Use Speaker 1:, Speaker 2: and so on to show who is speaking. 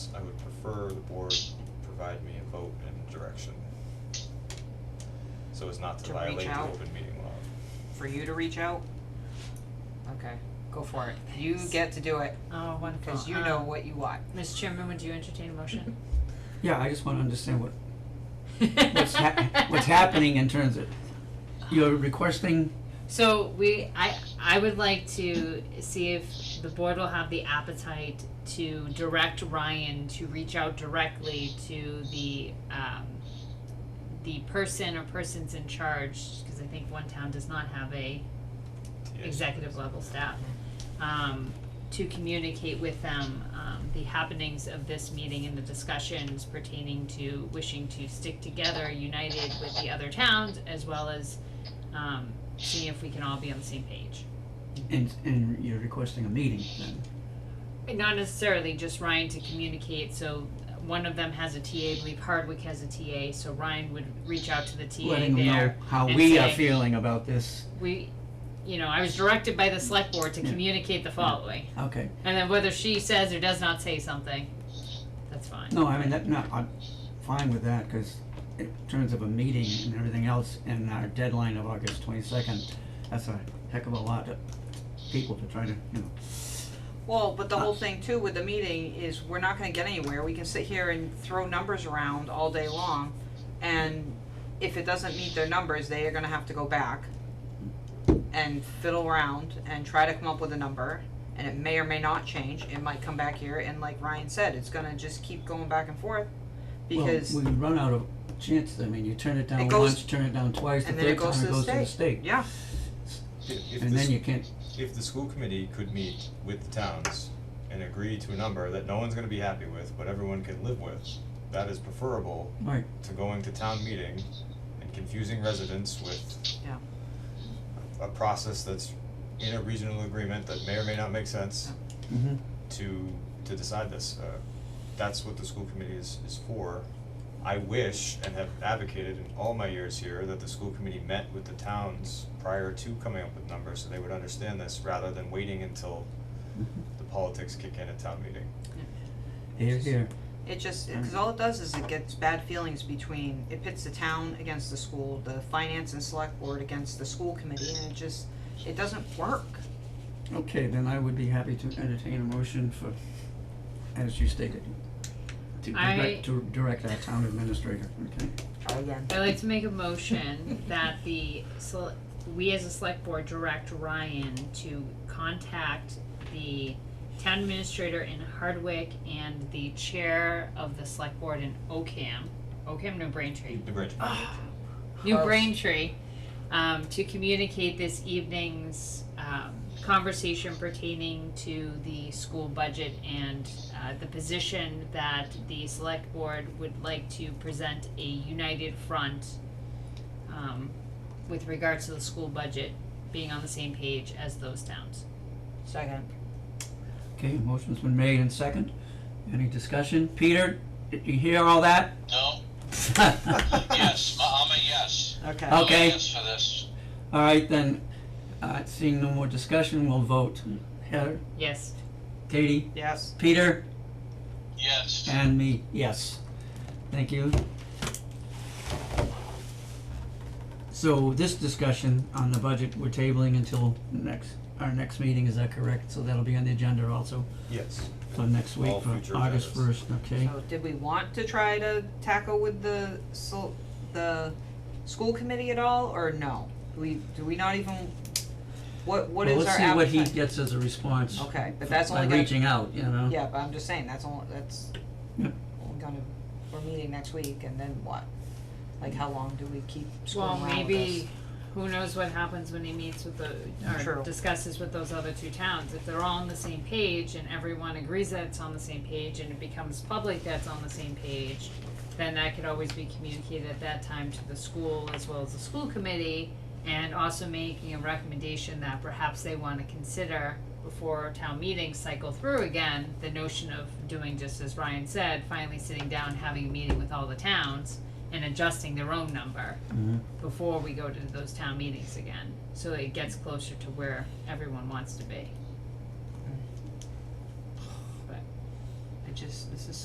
Speaker 1: prefer the board provide me a vote and direction. So as not to
Speaker 2: To reach
Speaker 1: violate the
Speaker 2: out?
Speaker 1: open meeting law.
Speaker 2: For you to reach out? Okay, go for it. You
Speaker 3: Thanks.
Speaker 2: get to do it,
Speaker 3: Oh, wonderful.
Speaker 2: cause you know
Speaker 3: Um,
Speaker 2: what you want.
Speaker 3: Mr. Chairman, would you entertain a motion?
Speaker 4: Yeah, I just wanna understand what, what's hap- what's happening in terms of, you're requesting,
Speaker 3: So we, I, I would like to see if the board will have the appetite to direct Ryan to reach out directly to the, um, the person or persons in charge, because I think one town does not have a
Speaker 1: Yes.
Speaker 3: executive level staff, um, to communicate with them, um, the happenings of this meeting and the discussions pertaining to wishing to stick together, united with the other towns, as well as, um, seeing if we can all be on the same page.
Speaker 4: and, and you're requesting a meeting then?
Speaker 3: And Not necessarily just Ryan to communicate, so one of them has a TA, I believe Hardwick has a TA, so Ryan would reach out to the TA
Speaker 4: Letting them know
Speaker 3: there.
Speaker 4: how
Speaker 3: and
Speaker 4: we are
Speaker 3: say-
Speaker 4: feeling about this,
Speaker 3: We, you know, I was directed by the select board to
Speaker 4: Yeah.
Speaker 3: communicate the following.
Speaker 4: okay.
Speaker 3: And then whether she says or does not say something, that's fine.
Speaker 4: No, I mean, that, no, I'm fine with that, cause in terms of a meeting and everything else, and our deadline of August twenty-second, that's a heck of a lot of people to try to, you know,
Speaker 2: Well, but the whole thing too with the meeting is we're not gonna get anywhere. We can sit here and throw numbers around all day long. And if it doesn't meet their numbers, they are gonna have to go back and fiddle around and try to come up with a number. And it may or may not change. It might come back here and like Ryan said, it's gonna just keep going back and forth.
Speaker 4: well,
Speaker 2: Because,
Speaker 4: we run out of chances, I mean, you turn it
Speaker 2: It
Speaker 4: down
Speaker 2: goes-
Speaker 4: once, turn it down twice, the
Speaker 2: and then it
Speaker 4: third
Speaker 2: goes
Speaker 4: time
Speaker 2: to
Speaker 4: it
Speaker 2: the
Speaker 4: goes to the
Speaker 2: state.
Speaker 4: state,
Speaker 2: yeah,
Speaker 1: If, if
Speaker 4: and
Speaker 1: the
Speaker 4: then
Speaker 1: s-
Speaker 4: you can't,
Speaker 1: if the school committee could meet with the towns and agree to a number that no one's gonna be happy with, but everyone can live with, that is preferable
Speaker 4: right,
Speaker 1: to going to town meeting and confusing residents with
Speaker 2: Yeah.
Speaker 1: a process that's in a regional agreement that may or may not make sense
Speaker 4: mhm.
Speaker 1: to to decide this. Uh, that's what the school committee is is for. I wish and have advocated in all my years here that the school committee met with the towns prior to coming up with numbers so they would understand this rather than waiting until the politics kick in at town meeting.
Speaker 4: Here, here,
Speaker 2: it just,
Speaker 4: Mm.
Speaker 2: cause all it does is it gets bad feelings between, it pits the town against the school, the finance and select board against the school committee, and it just, it doesn't work.
Speaker 4: okay, then I would be happy to entertain a motion for, as you stated. To
Speaker 3: I-
Speaker 4: direct, to direct our town administrator, okay,
Speaker 2: Try again.
Speaker 3: I'd like to make a motion that the, sele- we as a select board direct Ryan to contact the town administrator in Hardwick and the chair of the select board in Ocam, Ocam, New Braintree.
Speaker 1: The bridge.
Speaker 4: Ah.
Speaker 3: New
Speaker 2: Close.
Speaker 3: Braintree, um, to communicate this evening's, um, conversation pertaining to the school budget and, uh, the position that the select board would like to present a united front, um, with regards to the school budget being on the same page as those towns.
Speaker 2: Second.
Speaker 4: okay, motion's been made and second, any discussion, Peter, did you hear all that?
Speaker 5: No, yes, I- I'm a yes.
Speaker 2: Okay.
Speaker 5: I'm a
Speaker 4: Okay.
Speaker 5: yes for this.
Speaker 4: Alright then, uh, seeing no more discussion, we'll vote, Heather,
Speaker 3: Yes,
Speaker 4: Katie,
Speaker 2: Yes.
Speaker 4: Peter,
Speaker 5: Yes.
Speaker 4: and me, yes, thank you. So this discussion on the budget, we're tabling until next, our next meeting, is that correct, so that'll be on the agenda also?
Speaker 1: Yes.
Speaker 4: So next week
Speaker 1: All
Speaker 4: for
Speaker 1: future
Speaker 4: August
Speaker 1: agendas.
Speaker 4: first, okay?
Speaker 2: So did we want to try to tackle with the sol- the school committee at all, or no? Do we, do we not even, what, what is our
Speaker 4: Well, let's see what he
Speaker 2: appetite?
Speaker 4: gets as a response
Speaker 2: Okay, but that's
Speaker 4: by
Speaker 2: only gonna,
Speaker 4: reaching out, you know?
Speaker 2: yeah, but I'm just saying, that's only, that's,
Speaker 4: Yep.
Speaker 2: we're gonna, we're meeting next week, and then what? Like, how long do we keep screwing
Speaker 3: well,
Speaker 2: around with
Speaker 3: maybe, who knows what happens when he meets with the, or
Speaker 2: True.
Speaker 3: discusses with those other two towns, if they're all on the same page and everyone agrees that it's on the same page and it becomes public that's on the same page, then that could always be communicated at that time to the school as well as the school committee, and also making a recommendation that perhaps they wanna consider before town meetings cycle through again, the notion of doing just as Ryan said, finally sitting down, having a meeting with all the towns and adjusting their own number
Speaker 4: Mhm.
Speaker 3: before we go to those town meetings again, so it gets closer to where everyone wants to be.
Speaker 2: this? It just, this is